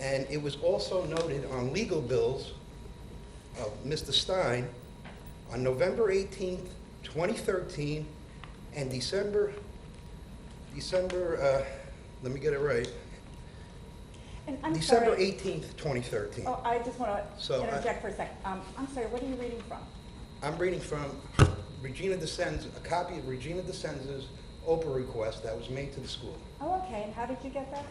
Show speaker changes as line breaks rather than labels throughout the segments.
And it was also noted on legal bills of Mr. Stein on November 18th, 2013, and December, December, uh, let me get it right,
And I'm
December
sorry.
18th, 2013.
Oh, I just want
So,
to
I-
interject for a second. Um, I'm sorry, what are you reading from?
I'm reading from Regina DeSenza, a copy of Regina DeSenza's Oprah request that was made to the school.
Oh, okay, and how did you get that?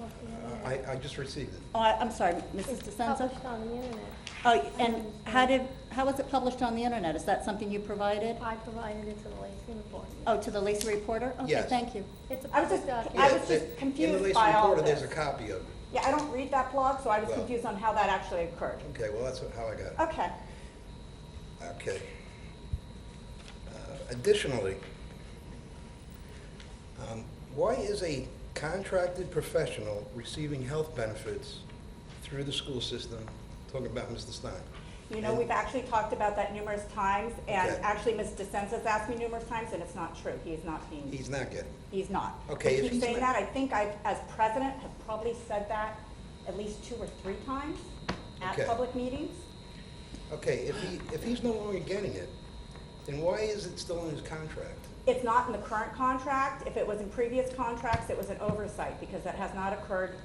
Uh,
Uh-huh.
I, I just received it.
Oh, I- I'm sorry, Mrs.
It's
DeSenza?
published on the internet.
Oh, and how did, how was it published on the internet? Is that something you provided?
I provided it to the Lacey Report.
Oh, to the Lacey Reporter? Okay,
Yes.
thank you.
It's a
I was
public
just-
document.
I was
Yeah,
just
the-
confused by all
In the latest reporter, there's
this.
a copy of it.
Yeah, I don't read that blog, so I was
Well-
confused on how that actually occurred.
Okay, well, that's how I got it.
Okay.
Okay. Uh, Additionally, um, why is a contracted professional receiving health benefits through the school system? Talking about Mr. Stein.
You know, we've actually talked about that numerous times, and
Okay.
actually, Ms. DeSenza's asked me numerous times, and it's not true. He is not being
He's not getting.
He's not.
Okay,
I
if
keep
he's
saying
not-
that, I think I, as president, have probably said that at least two or three times at
Okay.
public meetings.
Okay, if he, if he's no longer getting it, then why is it still in his contract?
It's not in the current contract. If it was in previous contracts, it was an oversight because that has not occurred.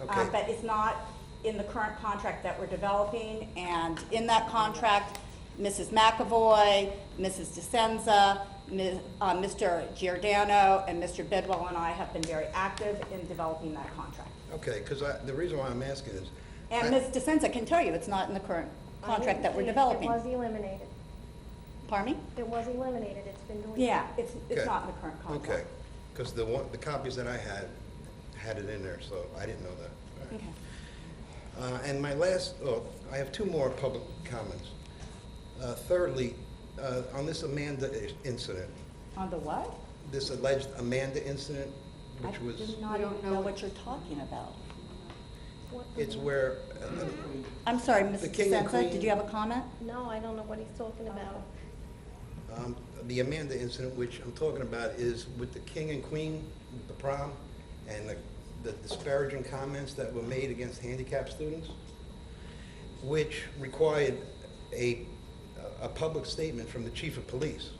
Um,
Okay.
But it's not in the current contract that we're developing. And in that contract, Mrs. McAvoy, Mrs. DeSenza, Ms., uh, Mr. Giordano, and Mr. Bidwell and I have been very active in developing that contract.
Okay, because I, the reason why I'm asking is. I-
And Ms. DeSenza can tell you, it's not in the current contract that we're developing.
It was eliminated.
Pardon me?
It was eliminated. It's been deleted.
Yeah, it's, it's
Okay.
not in the current contract.
Okay, because the one, the copies that I had, had it in there, so I didn't know that. All right.
Okay.
Uh, And my last, oh, I have two more public comments. Uh, Thirdly, uh, on this Amanda i- incident,
On the what?
this alleged Amanda incident, which
I
was,
do not
We don't
even
know
know
what-
what you're talking about.
What-
it's where, uh,
I'm sorry, Ms.
The king and
DeSenza, did
queen.
you have a comment?
No, I don't know what he's talking about.
um, the Amanda incident, which I'm talking about, is with the king and queen, the prom, and the- the disparaging comments that were made against handicapped students, which required a, a public statement from the chief of police.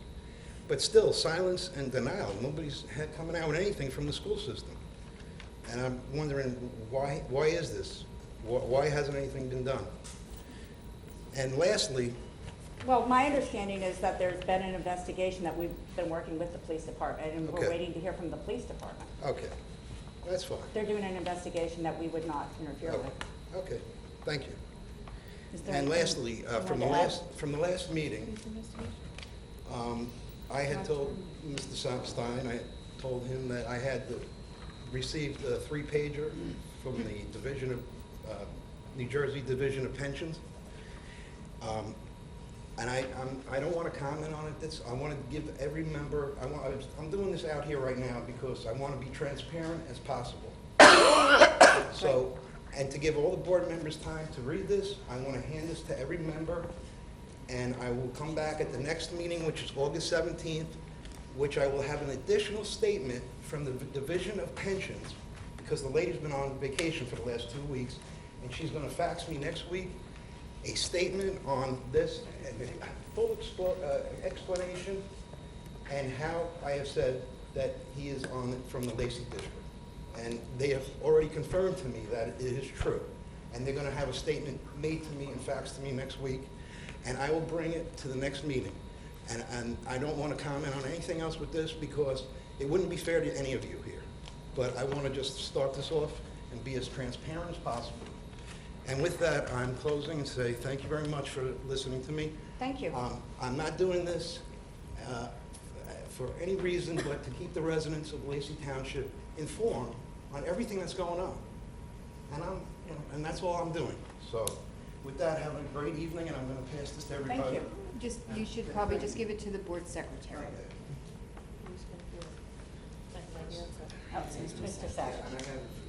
But still, silence and denial. Nobody's had, coming out with anything from the school system. And I'm wondering, why, why is this? Wh- Why hasn't anything been done? And lastly,
Well, my understanding is that there's been an investigation that we've been working with the police department, and we're
Okay.
waiting to hear from the police department.
okay, that's fine.
They're doing an investigation that we would not interfere
Okay,
with.
Oh, okay, thank you.
Is there
And
anything
lastly, uh,
you
from the
want to add?
last, from the last meeting, um, I had told Mr. Sa- Stein, I told him that I had the- received a three-pager from the Division of, uh, New Jersey Division of Pensions. Um, And I, I'm- I don't want to comment on it, That's I want to give every member, I want, I'm doing this out here right now because I want to be transparent as possible. So, and to give all the board members time to read this, I want to hand this to every member, and I will come back at the next meeting, which is August 17th, which I will have an additional statement from the Division of Pensions, because the lady's been on vacation for the last two weeks, and she's going to fax me next week a statement on this, and a full explo- uh, explanation, and how I have said that he is on, from the Lacey District. And they have already confirmed to me that it is true. And they're gonna have a statement made to me and faxed to me next week, and I will bring it to the next meeting. And, and I don't wanna comment on anything else with this, because it wouldn't be fair to any of you here. But I wanna just start this off and be as transparent as possible. And with that, I'm closing and say thank you very much for listening to me.
Thank you.
Um, I'm not doing this uh, for any reason but to keep the residents of Lacey Township informed on everything that's going on. And I'm, you know, and that's all I'm doing. So with that, have a great evening, and I'm going to pass this to everybody.
Thank you.
Just, you should probably just give it to the board secretary.
Oh, it's Mr. Sack.
And I have-